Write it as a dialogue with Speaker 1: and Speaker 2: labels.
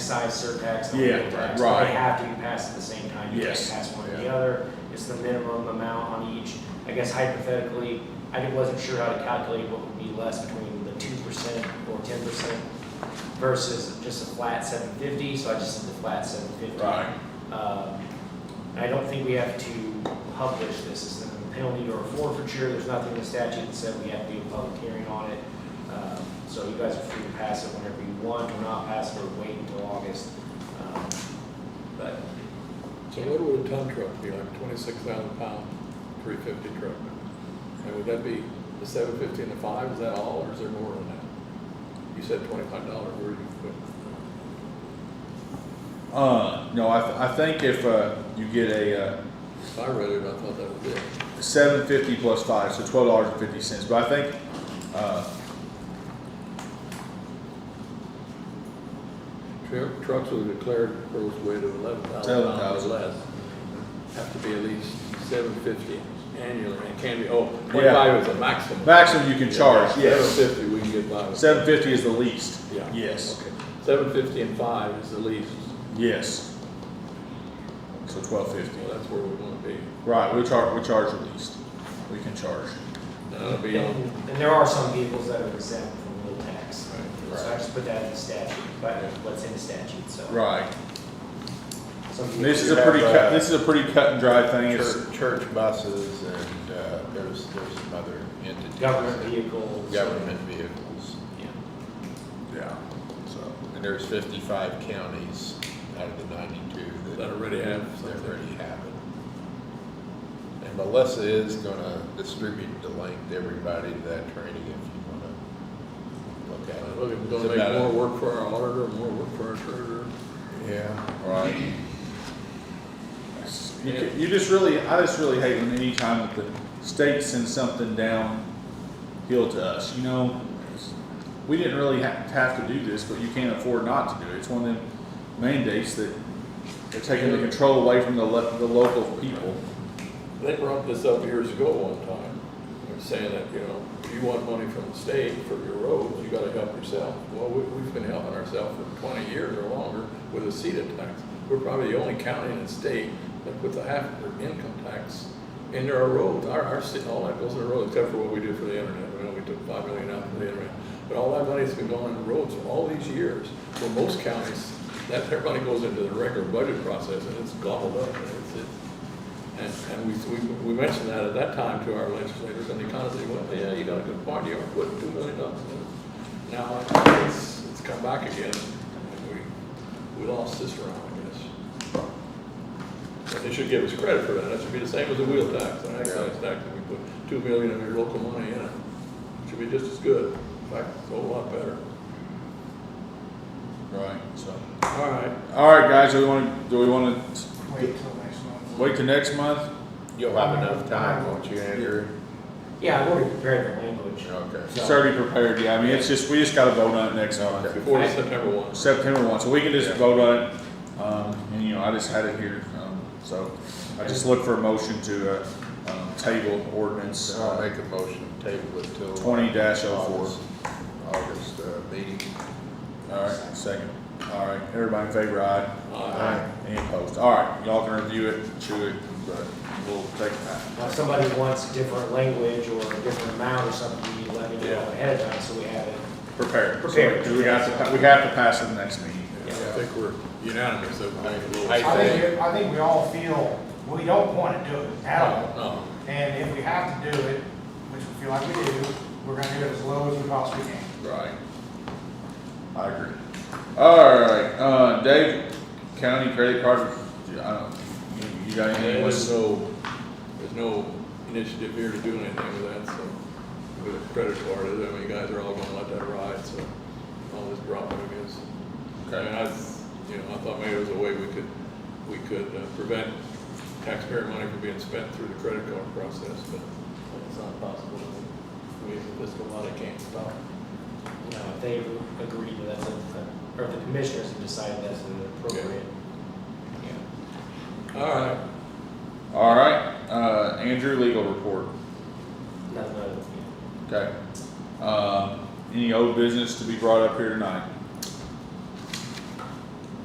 Speaker 1: excise surtax and
Speaker 2: Yeah,
Speaker 1: wheel tax,
Speaker 2: right.
Speaker 1: they have to be passed at the same time. You can't
Speaker 2: Yes.
Speaker 1: pass one or the
Speaker 2: Yeah.
Speaker 1: other. It's the minimum amount on each. I guess hypothetically, I wasn't sure how to calculate what would be less between the two percent or ten percent versus just a flat seven fifty, so I just did the flat seven fifty.
Speaker 2: Right.
Speaker 1: Um, I don't think we have to publish this, it's not a penalty or a forfeiture, there's nothing in the statute that said we have to do a public hearing on it. Um, So you guys are free to pass it whenever you want, or not pass it, or wait until August. Um, But
Speaker 3: So what would a ton truck be, like twenty-six thousand pound, three fifty truck? And would that be the seven fifty and the five, is that all, or is there more than that? You said twenty-five dollar, where you put?
Speaker 2: Uh, no, I, th- I think if, uh, you get a, uh,
Speaker 3: If I read it, I thought that was it.
Speaker 2: seven fifty plus five, so twelve dollars and fifty cents, but I think, uh,
Speaker 3: Tru- Trucks with a declared gross weight of eleven thousand pounds
Speaker 2: 11,000.
Speaker 3: or less have to be at least seven fifty annually, and it can be, oh,
Speaker 2: Yeah.
Speaker 3: twenty-five is the maximum.
Speaker 2: maximum you can charge, yes.
Speaker 3: Seven fifty, we can get by with.
Speaker 2: Seven fifty is the least,
Speaker 3: Yeah.
Speaker 2: yes,
Speaker 3: Seven fifty and five is the least,
Speaker 2: yes. So twelve fifty,
Speaker 3: well, that's where we wanna be.
Speaker 2: right, we charge, we charge the least, we can charge.
Speaker 3: That'll be on.
Speaker 1: And and there are some vehicles that are exempt from wheel tax.
Speaker 3: Right,
Speaker 1: So I
Speaker 2: right.
Speaker 1: just put that in the statute, but what's in the statute, so.
Speaker 2: Right,
Speaker 1: Some
Speaker 2: this
Speaker 1: vehicles-
Speaker 2: is a pretty cut, this is a pretty cut and dry thing, it's,
Speaker 4: Church, church buses and, uh, there's, there's some other entities.
Speaker 1: Government vehicles.
Speaker 4: Government vehicles,
Speaker 1: Yeah.
Speaker 2: yeah, so.
Speaker 4: and there's fifty-five counties out of the ninety-two
Speaker 3: That
Speaker 4: that
Speaker 3: already have
Speaker 4: that
Speaker 3: something.
Speaker 4: already have it. And Melissa is gonna distribute the link to everybody to that training if you wanna look at it.
Speaker 3: Look, it's
Speaker 4: It's
Speaker 3: gonna
Speaker 4: about
Speaker 3: make
Speaker 4: a-
Speaker 3: more work for our auditor, more work for our treasurer.
Speaker 4: Yeah,
Speaker 2: Right. You, ca- you just really, I just really hate when any time that the state sends something downhill to us, you know? We didn't really have, have to do this, but you can't afford not to do it. It's one of them mandates that they're taking the control away from the le, the local people.
Speaker 3: They brought this up years ago one time, They were saying that, you know, if you want money from the state for your roads, you gotta help yourself. Well, we, we've been helping ourselves for twenty years or longer with a CETA tax. We're probably the only county in the state that puts a half of their income tax into our roads. Our, our, ci- all that goes in the road, except for what we do for the internet, we know we took five million out for the internet. But all that money's been going into roads for all these years, where most counties, that, their money goes into the regular budget process, and it's gobbled up, and it's, it's, and, and we, we, we mentioned that at that time to our legislators, and they kind of said, well, yeah, you got a good point, you are putting two million dollars in. Now, it's, it's come back again, and we, we lost this round, I guess. But they should give us credit for that, that should be the same as the wheel tax, an excise tax, that we put two million of your local money in it. Should be just as good, in fact, it's a whole lot better.
Speaker 2: Right, so.
Speaker 3: All right,
Speaker 2: All right, guys, do we wanna, do we wanna s-
Speaker 5: Wait till next month.
Speaker 2: wait till next month?
Speaker 4: you'll have enough time, won't you, Andrew?
Speaker 1: Yeah, we're prepared for language.
Speaker 4: Okay.
Speaker 2: Just already prepared, yeah. I mean, it's just, we just gotta vote on it next month.
Speaker 3: before September one.
Speaker 2: September one, so we can just
Speaker 4: Yeah.
Speaker 2: vote on it, um, and you know, I just had it here, um, so I just look for a motion to, uh, um, table ordinance,
Speaker 4: So I'll
Speaker 2: uh,
Speaker 4: make a motion, to table it till.
Speaker 2: twenty dash oh
Speaker 4: August,
Speaker 2: four.
Speaker 4: August, uh, meeting.
Speaker 2: Alright, second, alright, everybody in favor, aye?
Speaker 3: Aye.
Speaker 2: Any opposed? Alright, y'all can review it, chew it, but we'll take it back.
Speaker 1: Now, if somebody wants different language or a different amount or something, you let me know
Speaker 3: Yeah.
Speaker 1: ahead of time, so we have it.
Speaker 2: Prepare. it. So,
Speaker 1: Prepare.
Speaker 2: Cause we got to, pa- we have to pass it the next meeting.
Speaker 3: I think we're unanimous, so.
Speaker 4: I
Speaker 5: I think, I think we all feel, we don't want to do it at all.
Speaker 3: No.
Speaker 5: And if we have to do it, which we feel like we do, we're going to do it as low as we possibly can.
Speaker 2: Right. I agree. Alright, uh, Dave, county credit card, I don't, you- you got anything?
Speaker 3: There's
Speaker 2: What's-
Speaker 3: no, there's no initiative here to do anything with that, so, with the credit card, I mean, you guys are all gonna let that ride, so, all this dropping is. I mean, I, you know, I thought maybe there was a way we could, we could uh, prevent taxpayer money from being spent through the credit card process, but it's not possible. We, this body can't stop.
Speaker 1: You know, if they agree that that's, a- or if the commissioners have decided that's an appropriate. yeah.
Speaker 3: All right,
Speaker 2: Alright, uh, Andrew, legal report,
Speaker 1: Not- not- yeah.
Speaker 2: Uh, okay. Um, any old business to be brought up here tonight?